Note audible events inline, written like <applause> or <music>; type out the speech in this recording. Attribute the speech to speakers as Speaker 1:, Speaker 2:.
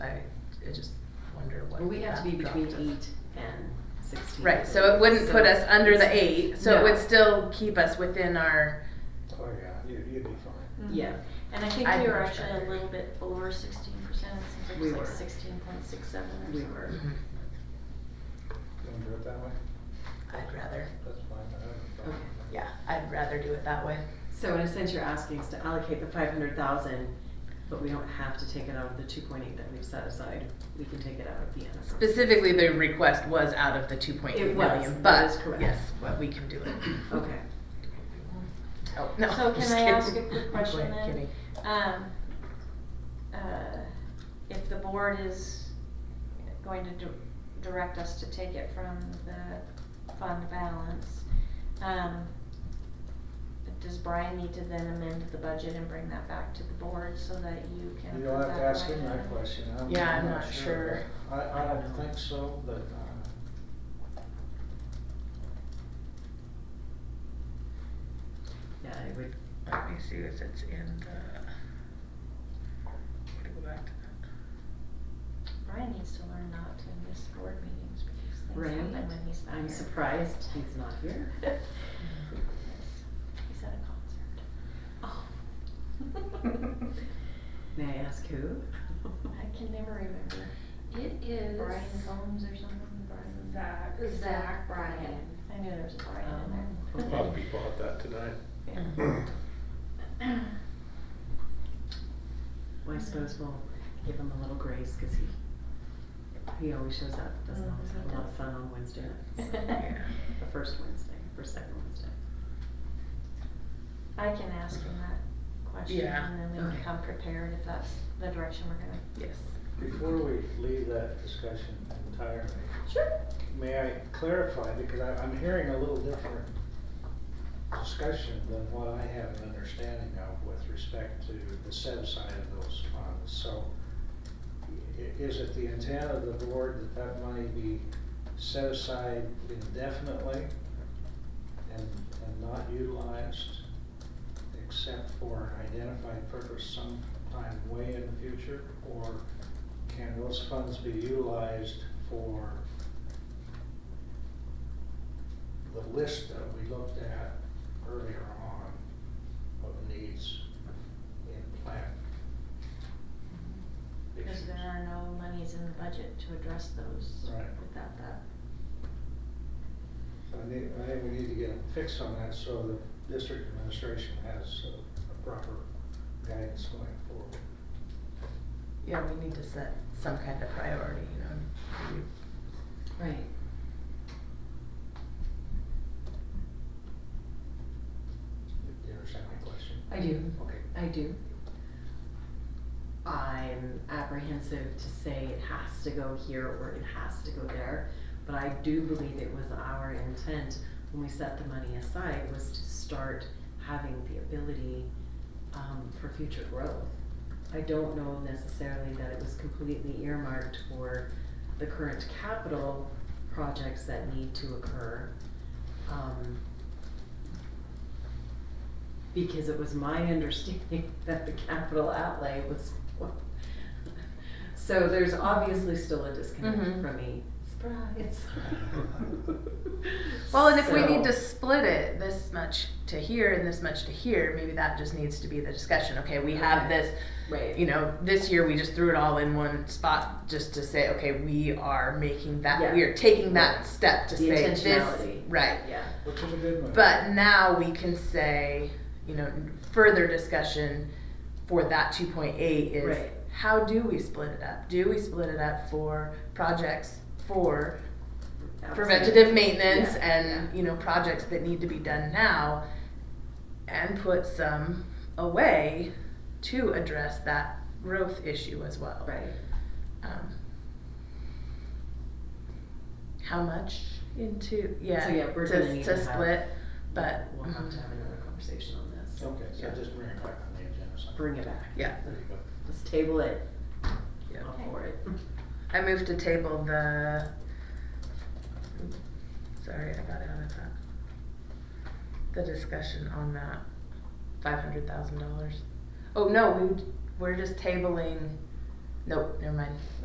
Speaker 1: I just wonder what.
Speaker 2: Well, we have to be
Speaker 1: that
Speaker 2: between
Speaker 1: dropped us.
Speaker 2: eight and sixteen.
Speaker 3: Right, so it wouldn't put
Speaker 2: So
Speaker 3: us under the
Speaker 2: it's-
Speaker 3: eight, so it
Speaker 2: No.
Speaker 3: would still keep us within our,
Speaker 4: Oh, yeah, you, you'd be fine.
Speaker 2: Yeah,
Speaker 5: Mm-hmm. And I think
Speaker 3: I'd
Speaker 5: we were
Speaker 3: much
Speaker 5: actually a
Speaker 3: rather.
Speaker 5: little bit over sixteen percent, it
Speaker 2: We
Speaker 5: seems like
Speaker 2: were.
Speaker 5: it was like sixteen point six seven or
Speaker 2: We
Speaker 5: something.
Speaker 2: were.
Speaker 5: <laughs>
Speaker 4: You wanna do it that way?
Speaker 3: I'd rather,
Speaker 4: That's fine, I have a problem.
Speaker 2: Okay.
Speaker 3: yeah, I'd rather do it that way.
Speaker 2: so in a sense, you're asking us to allocate the five hundred thousand, but we don't have to take it out of the two point eight that we've set aside. We can take it out of the end.
Speaker 3: Specifically, the request was out of the two point eight
Speaker 2: It was,
Speaker 3: million,
Speaker 2: that is
Speaker 3: but,
Speaker 2: correct.
Speaker 3: yes, but we can do it.
Speaker 2: Okay.
Speaker 3: Oh, no,
Speaker 5: So
Speaker 3: just
Speaker 5: can I ask a
Speaker 3: kidding. <laughs>
Speaker 5: quick question
Speaker 3: Kidding,
Speaker 5: then?
Speaker 3: kidding.
Speaker 5: Um, uh, if the board is going to di- direct us to take it from the fund balance, um, does Brian need to then amend the budget and bring that back to the board so that you can?
Speaker 4: You'll
Speaker 5: approve
Speaker 4: have to
Speaker 5: that
Speaker 4: ask
Speaker 5: line
Speaker 4: him that
Speaker 5: item?
Speaker 4: question, I'm,
Speaker 3: Yeah,
Speaker 4: I'm
Speaker 3: I'm
Speaker 4: not
Speaker 3: not
Speaker 4: sure.
Speaker 3: sure.
Speaker 4: but I, I don't think so, but, uh,
Speaker 2: Yeah, I would,
Speaker 1: Let me see if it's in the. Let me go back to
Speaker 5: Brian needs to learn not to miss board meetings because
Speaker 2: Right.
Speaker 5: things happen when he's not
Speaker 2: I'm
Speaker 5: here.
Speaker 2: surprised he's not here.
Speaker 5: <laughs> He's at a <laughs> concert.
Speaker 2: Oh. May I ask who?
Speaker 5: I can never remember.
Speaker 6: It is.
Speaker 5: Brian Combs or something, Brian.
Speaker 6: Zach.
Speaker 5: Zach
Speaker 6: Zach
Speaker 5: Brian.
Speaker 6: Bryan.
Speaker 5: I knew there was a Brian
Speaker 2: Oh,
Speaker 5: in
Speaker 7: A
Speaker 5: there.
Speaker 7: lot of people had that
Speaker 5: <laughs>
Speaker 7: tonight.
Speaker 5: Yeah.
Speaker 2: Well, I suppose we'll give him a little grace, cause he, he always shows up, doesn't always have a lot of fun on Wednesday
Speaker 5: <laughs>
Speaker 2: nights. <laughs>
Speaker 1: Yeah.
Speaker 2: The first Wednesday, first second Wednesday.
Speaker 5: I can ask him that question
Speaker 3: Yeah.
Speaker 5: and then we
Speaker 2: Okay.
Speaker 5: can come prepared if that's the direction we're gonna.
Speaker 3: Yes.
Speaker 4: before we leave that discussion entirely,
Speaker 5: Sure.
Speaker 4: May I clarify, because I, I'm hearing a little different discussion than what I have an understanding of with respect to the set aside of those funds. So i- is it the intent of the board that that money be set aside indefinitely and, and not utilized except for an identified purpose sometime way in the future? Or can those funds be utilized for the list that we looked at earlier on of needs in plan.
Speaker 5: Because there are no monies in the budget to address those
Speaker 4: Right.
Speaker 5: without that.
Speaker 4: So I need, I think we need to get a fix on that so the district administration has a- a proper guidance going forward.
Speaker 3: Yeah, we need to set some kind of priority, you know.
Speaker 2: Right.
Speaker 4: Do you understand my question?
Speaker 2: I do.
Speaker 4: Okay.
Speaker 2: I do. I'm apprehensive to say it has to go here or it has to go there, but I do believe it was our intent when we set the money aside was to start having the ability um, for future growth. I don't know necessarily that it was completely earmarked for the current capital projects that need to occur. Um, because it was my <laughs> understanding that the capital outlay was. <laughs> So there's obviously still a disconnect
Speaker 3: Mhm.
Speaker 2: from me. Surprise.
Speaker 3: <laughs> Well, and if we need to
Speaker 2: So-
Speaker 3: split it this much to here and this much to here, maybe that just needs to be the discussion. Okay, we have this,
Speaker 2: Right.
Speaker 3: you know, this year we just threw it all in one spot just to say, okay, we are making that,
Speaker 2: Yeah.
Speaker 3: we are taking that step to
Speaker 2: The
Speaker 3: say this,
Speaker 2: intentionality.
Speaker 3: right?
Speaker 2: Yeah.
Speaker 4: Which is a good one.
Speaker 3: But now we can say, you know, further discussion for that two point eight is
Speaker 2: Right.
Speaker 3: how do we split it up? Do we split it up for projects for preventative maintenance
Speaker 2: Yeah,
Speaker 3: and, you know, projects that need to be done now? And put some away to address that growth issue as well.
Speaker 2: Right.
Speaker 3: Um, How much into, yeah,
Speaker 2: So, yeah, we're gonna
Speaker 3: to,
Speaker 2: need
Speaker 3: to
Speaker 2: to have-
Speaker 3: split, but. um,
Speaker 2: We'll have to have another conversation on this.
Speaker 4: Okay, so
Speaker 3: Yeah.
Speaker 4: just bring it back on the agenda. sometime.
Speaker 2: Bring it back.
Speaker 3: Yeah.
Speaker 4: There you go.
Speaker 2: Let's table it.
Speaker 3: Yeah.
Speaker 2: All for it.
Speaker 3: I moved to table the. Sorry, I got out of that. The discussion on that five hundred thousand dollars. Oh no, we we're just tabling. Nope, never mind.